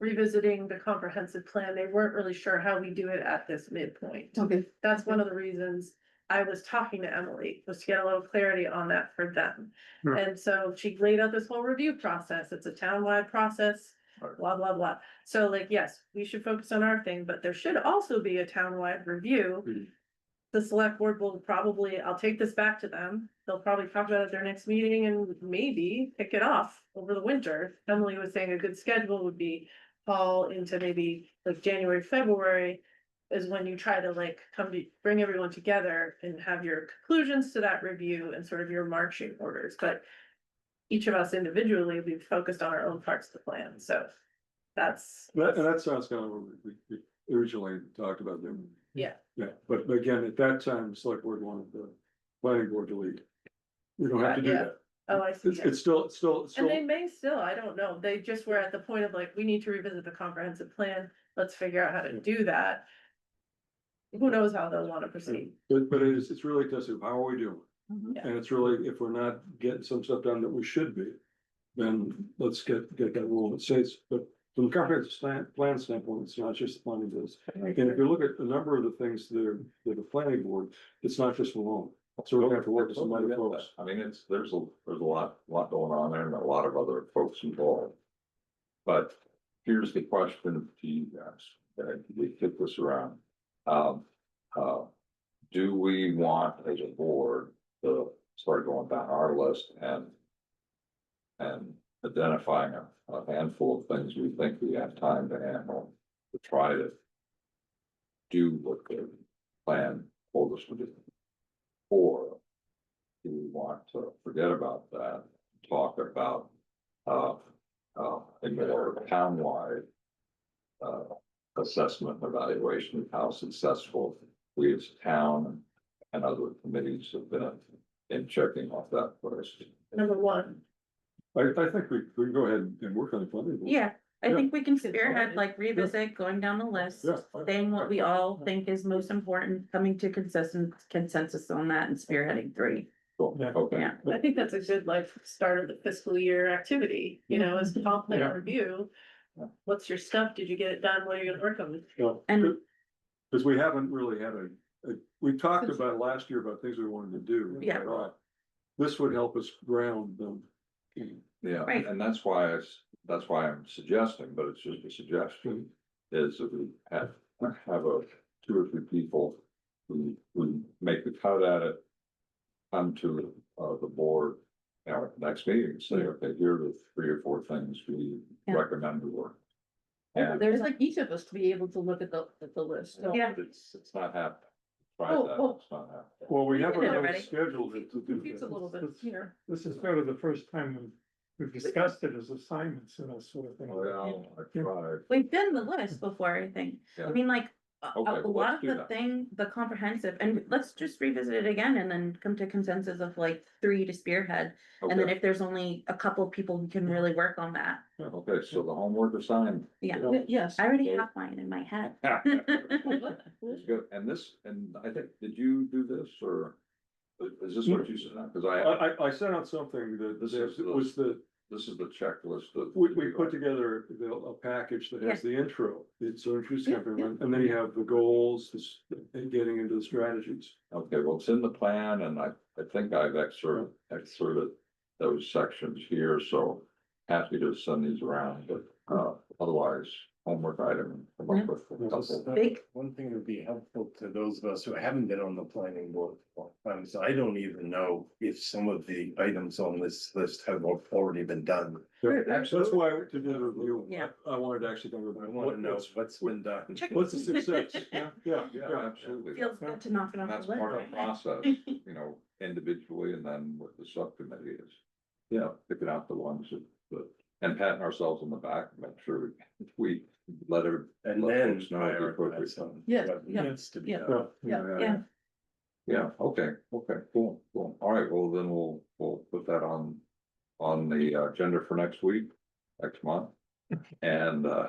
revisiting the comprehensive plan, they weren't really sure how we do it at this midpoint. Okay, That's one of the reasons I was talking to Emily, was to get a little clarity on that for them. Hmm. And so she laid out this whole review process, it's a townwide process, blah, blah, blah. So like, yes, we should focus on our thing, but there should also be a townwide Hmm. review. The select board will probably, I'll take this back to them, they'll probably talk about it at their next meeting and maybe pick it off over the winter. Emily was saying a good schedule would be fall into maybe like January, February is when you try to like come to, bring everyone together and have your conclusions to that review and sort of your marching orders, but each of us individually, we've focused on our own parts of the plan, so that's. That, and that sounds kind of what we- we we originally talked about there. Yeah. Yeah, but again, at that time, the select board wanted the planning board to lead. We don't have to do Yeah. that. Oh, I see. It's, it's still, it's still, it's And they still, may still, I don't know, they just were at the point of like, we need to revisit the comprehensive plan, let's figure out how to do that. Who knows how they'll wanna proceed, but, but it is, it's really a test of how are we doing? Mhm. And it's really, if we're not getting some stuff done that we should be, then let's get, get that rule that says, but from the comprehensive plan, plan standpoint, it's not just the planning board. And if you look at a number of the things that are, that the planning board, it's not just Malone. So we're gonna have to work with some other folks. I mean, it's, there's a, there's a lot, lot going on there and a lot of other folks involved. But here's the question to you guys, that we kick this around. Um, uh, do we want as a board to start going down our list and and identifying a, a handful of things we think we have time to handle, to try to do what the plan told us to do? Or do we want to forget about that, talk about, uh, uh, a more townwide uh, assessment, evaluation, of how successful we as a town and other committees have been in checking off that first. number one. I, I think we, we can go ahead and work on the planning board. Yeah, I Yeah. think we can spearhead, like revisit, going down the list, Yeah. saying what we all think is most important, coming to consistent consensus on that and spearheading three. Cool, Yeah. okay. Yeah. I think that's a good like start of the fiscal year activity, you know, Mhm. is comp plan Yeah. review. What's your stuff? Did you get it done? What are you gonna work on? No, And- Cause we haven't really had a, a- we talked about last year about things we wanted to do. Yeah. Right. This would help us ground them. Yeah, Right. and that's why I, s- that's why I'm suggesting, but it's just a suggestion, is that we have, have a two or three people who, who make the cut at it, come to, uh, the board at our next meeting, and say, okay, here are the three or four things we Yeah. recommend to work. And there's like each of us to be able to look at the, at the list. so- Yeah. it's, it's not happening. Try Oh, that, oh. it's not happening. Well, we haven't did it really already. scheduled it to do. Confused a little bit here. This is sort of the first time we've, we've discussed it as assignments and that sort of thing. Well, I tried. We've done the list before, I think. Yeah. I mean, like, a, a- Okay, a well, lot let's of do the that. thing, the comprehensive, and let's just revisit it again and then come to consensus of like three to spearhead. And then Okay, if there's only a couple people who can really work on that, okay, so the homework assigned. yeah. Yeah. Yes. I already have mine in my head. It's good, and this, and I think, did you do this, or is this what you said, because I, I, I, I sent out something that, This is that the- was the, this is the checklist that. we, we put together the- a package that has the intro. It's so introducing Yeah, everyone, and then you have the goals, this, and getting into the strategies. Okay, well, it's in the plan, and I, I think I've excerpted, excerpted those sections here, so happy to send these around, but, uh, otherwise, homework item. come Mm-hmm. up with a couple. Big. One thing that would be helpful to those of us who haven't been on the planning board for a long time, so I don't even know if some of the items on this list have al- already been done. Yeah, That's why to do the review, Yeah. I I wanted to actually think I about want to what, know what's, what's been done. Check. what's the success? Yeah, yeah, Yeah, absolutely, Feels good to knock it and off that's the list. part of the process, you know, individually, and then what the subcommittee is. You know, picking out the ones that, that- and patting ourselves on the back, make sure we let every, And Let then. folks know the appropriate- prioritize on Yes, what yeah, needs to be yeah. done. yeah. Yeah, Yeah. Yeah, okay, okay, cool, cool. All right, well, then we'll, we'll put that on, on the agenda for next week, next month. And, uh.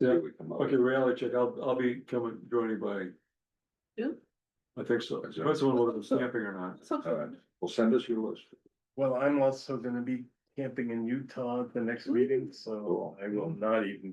see what we come up Okay, with. reality check, I'll, I'll be coming, joining by. Who? I think so, that's one whether it's camping or not. All right, well, send us your list. Well, I'm also gonna be camping in Utah at the next meeting, so Cool. I will not even